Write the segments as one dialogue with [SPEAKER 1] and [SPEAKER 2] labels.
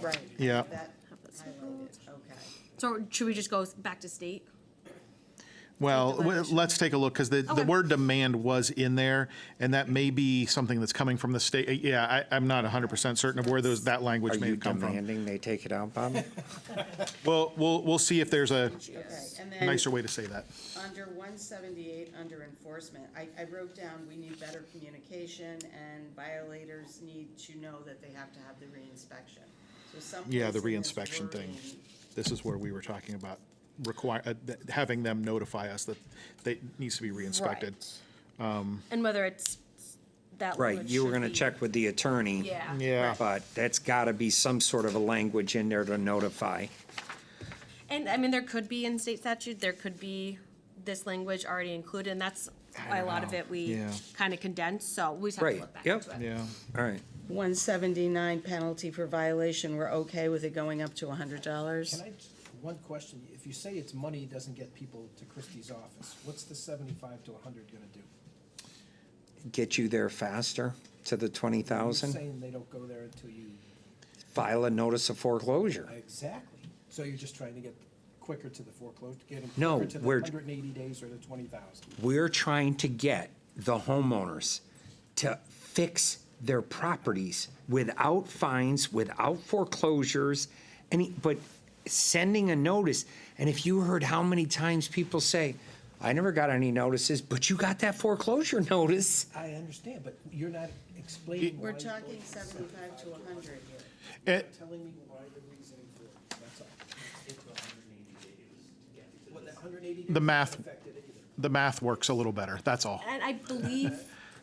[SPEAKER 1] Right.
[SPEAKER 2] Yeah.
[SPEAKER 1] That highlighted, okay.
[SPEAKER 3] So should we just go back to state?
[SPEAKER 2] Well, w- let's take a look, because the, the
[SPEAKER 3] Okay.
[SPEAKER 2] word demand was in there, and that may be something that's coming from the state. Uh, Yeah, I, I'm not hundred percent certain of where those, that
[SPEAKER 4] Are
[SPEAKER 2] language may
[SPEAKER 4] you
[SPEAKER 2] have come from.
[SPEAKER 4] demanding they take it out, Bob?
[SPEAKER 2] Well, we'll, we'll see if there's a
[SPEAKER 1] Okay, and then
[SPEAKER 2] nicer way to say that.
[SPEAKER 1] under one seventy-eight, under enforcement, I, I wrote down, we need better communication and violators need to know that they have to have the reinspection. So someplace
[SPEAKER 2] Yeah, the
[SPEAKER 1] in this
[SPEAKER 2] reinspection thing.
[SPEAKER 1] wording-
[SPEAKER 2] This is where we were talking about require, uh, th- having them notify us that they, needs to be reinspected. um,
[SPEAKER 3] And whether it's that.
[SPEAKER 4] Right,
[SPEAKER 3] language
[SPEAKER 4] you were
[SPEAKER 3] should
[SPEAKER 4] gonna
[SPEAKER 3] be-
[SPEAKER 4] check with the attorney.
[SPEAKER 3] Yeah.
[SPEAKER 2] Yeah.
[SPEAKER 4] But that's gotta be some sort of a language in there to notify.
[SPEAKER 3] And I mean, there could be in state statute, there could be this language already included, and that's why a lot of it we
[SPEAKER 2] Yeah.
[SPEAKER 3] kind of condense, so we just have to
[SPEAKER 4] Right,
[SPEAKER 3] look back
[SPEAKER 4] yep,
[SPEAKER 3] into it.
[SPEAKER 2] Yeah,
[SPEAKER 4] all right.
[SPEAKER 1] 179 penalty for violation, we're okay with it going up to
[SPEAKER 5] Can
[SPEAKER 1] $100?
[SPEAKER 5] I, just- one question, if you say it's money doesn't get people to Christie's office, what's the seventy-five to hundred gonna do?
[SPEAKER 4] Get you there faster to the twenty
[SPEAKER 5] You're
[SPEAKER 4] thousand,
[SPEAKER 5] saying they don't go there until you,
[SPEAKER 4] file a notice of foreclosure.
[SPEAKER 5] exactly, so you're just trying to get quicker to the foreclosure, get them
[SPEAKER 4] No,
[SPEAKER 5] quicker to the
[SPEAKER 4] we're-
[SPEAKER 5] hundred and eighty days or the twenty thousand.
[SPEAKER 4] We're trying to get the homeowners to fix their properties without fines, without foreclosures, any, but sending a notice. And if you heard how many times people say, I never got any notices, but you got that foreclosure notice.
[SPEAKER 5] I understand, but you're not explaining why.
[SPEAKER 1] We're
[SPEAKER 5] you're going
[SPEAKER 1] talking
[SPEAKER 5] from
[SPEAKER 1] 75 to 100 here.
[SPEAKER 5] You're
[SPEAKER 2] Eh.
[SPEAKER 5] Telling me why the reasoning for it, that's all. Well, that hundred and eighty days.
[SPEAKER 2] The math-
[SPEAKER 5] hasn't affected it either.
[SPEAKER 2] the math works a little better, that's all.
[SPEAKER 3] And I believe,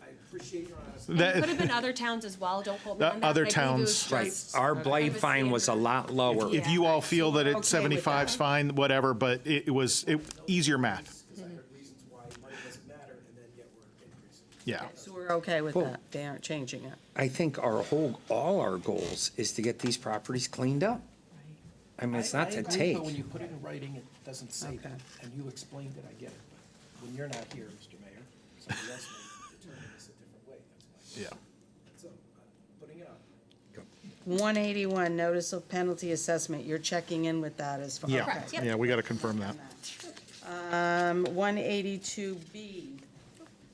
[SPEAKER 5] I appreciate your honesty.
[SPEAKER 3] and it
[SPEAKER 2] That-
[SPEAKER 3] could have been other towns as well, don't quote me
[SPEAKER 2] The
[SPEAKER 3] on that.
[SPEAKER 2] other
[SPEAKER 3] but I believe it was
[SPEAKER 2] towns.
[SPEAKER 4] Right,
[SPEAKER 3] just
[SPEAKER 4] our
[SPEAKER 3] kind
[SPEAKER 4] blight
[SPEAKER 3] of a
[SPEAKER 4] fine was a
[SPEAKER 3] standard.
[SPEAKER 4] lot lower.
[SPEAKER 2] If
[SPEAKER 3] Yeah.
[SPEAKER 2] you all feel that it's
[SPEAKER 3] Okay with that.
[SPEAKER 2] 75's fine, whatever, but it it was, it, easier math,
[SPEAKER 5] Because I heard reasons why money doesn't matter, and then yet we're increasing.
[SPEAKER 2] yeah.
[SPEAKER 1] So we're okay with that, they aren't changing it.
[SPEAKER 4] I think our whole, all our goals is to get these properties cleaned up. I mean, it's
[SPEAKER 5] I- I
[SPEAKER 4] not to
[SPEAKER 5] agree,
[SPEAKER 4] take.
[SPEAKER 5] But when you put it in writing, it doesn't say that, and you explained it, I get it. But When you're not here, Mr. Mayor, somebody else may determine this a different way, that's why.
[SPEAKER 2] Yeah.
[SPEAKER 5] So, I'm putting it up.
[SPEAKER 1] 181, notice of penalty assessment, you're checking in with that as far,
[SPEAKER 2] Yeah,
[SPEAKER 1] okay.
[SPEAKER 3] yep.
[SPEAKER 2] yeah, we got to confirm that.
[SPEAKER 1] Um, 182B,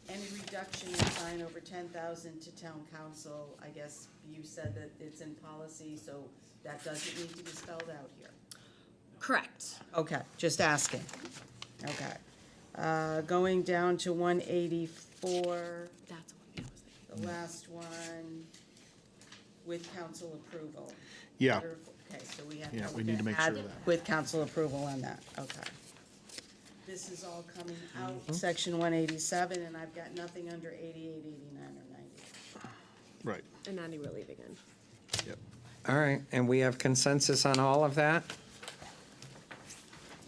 [SPEAKER 1] any reduction in fine over 10,000 to town council, I guess you said that it's in policy, so that doesn't need to be spelled out here.
[SPEAKER 3] Correct.
[SPEAKER 1] Okay, just asking. Okay. Uh, Going down to 184,
[SPEAKER 3] That's the one I was thinking.
[SPEAKER 1] the last one, with council approval.
[SPEAKER 2] Yeah.
[SPEAKER 1] Okay, so we have.
[SPEAKER 2] Yeah, we need to make sure of that.
[SPEAKER 1] With council approval on that, okay. This is all coming out,
[SPEAKER 2] Mm-hmm.
[SPEAKER 1] section 187, and I've got nothing under 88, 89, or 90.
[SPEAKER 2] Right.
[SPEAKER 3] And Andy, we're leaving in.
[SPEAKER 2] Yep.
[SPEAKER 4] All right, and we have consensus on all of that?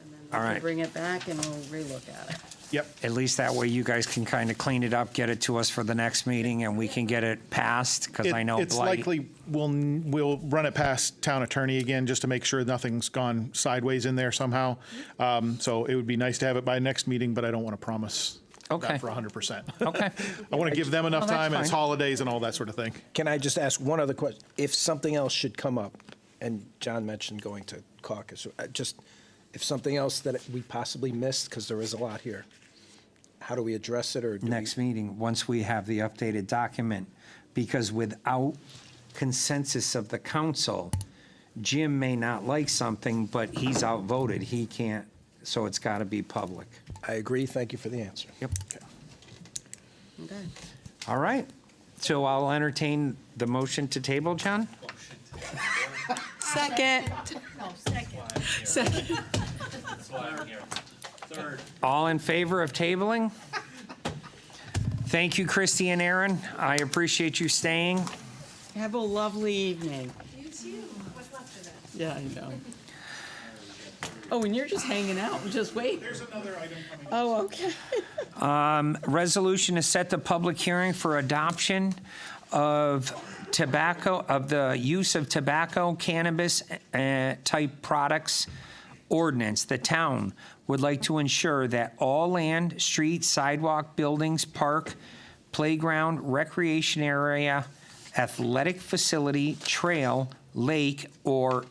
[SPEAKER 1] And then we
[SPEAKER 4] All
[SPEAKER 1] can
[SPEAKER 4] right.
[SPEAKER 1] bring it back and we'll relook at it.
[SPEAKER 2] Yep.
[SPEAKER 4] At least that way you guys can kind of clean it up, get it to us for the next meeting, and we can get it passed, because I
[SPEAKER 2] It-
[SPEAKER 4] know
[SPEAKER 2] It's
[SPEAKER 4] blight.
[SPEAKER 2] likely we'll, we'll run it past town attorney again, just to make sure nothing's gone sideways in there somehow. Um, So it would be nice to have it by next meeting, but I don't want to promise
[SPEAKER 4] Okay.
[SPEAKER 2] that for 100%.
[SPEAKER 4] Okay,
[SPEAKER 2] I want to give them enough
[SPEAKER 4] that's
[SPEAKER 2] time, and it's
[SPEAKER 4] fine.
[SPEAKER 2] holidays and all that sort of thing.
[SPEAKER 5] Can I just ask one other question? If something else should come up, and John mentioned going to caucus, uh, just if something else that we possibly missed, because there is a lot here, how do we address it, or do we?
[SPEAKER 4] next meeting, once we have the updated document, because without consensus of the council, Jim may not like something, but he's outvoted, he can't, so it's got to be public.
[SPEAKER 5] I agree, thank you for the answer.
[SPEAKER 4] Yep.
[SPEAKER 1] Okay.
[SPEAKER 4] All right, so I'll entertain the motion to table, John?
[SPEAKER 3] Second. Second.
[SPEAKER 4] All in favor of tabling? Thank you, Christy and Aaron. I appreciate you staying.
[SPEAKER 1] Have a lovely evening.
[SPEAKER 6] You too. What's left of it?
[SPEAKER 1] Yeah, I know. Oh, and you're just hanging out, just wait. There's another item coming. Oh, okay.
[SPEAKER 4] Resolution to set the public hearing for adoption of tobacco, of the use of tobacco, cannabis, uh, type products ordinance. The town would like to ensure that all land, street, sidewalk, buildings, park, playground, recreation area, athletic facility, trail, lake, or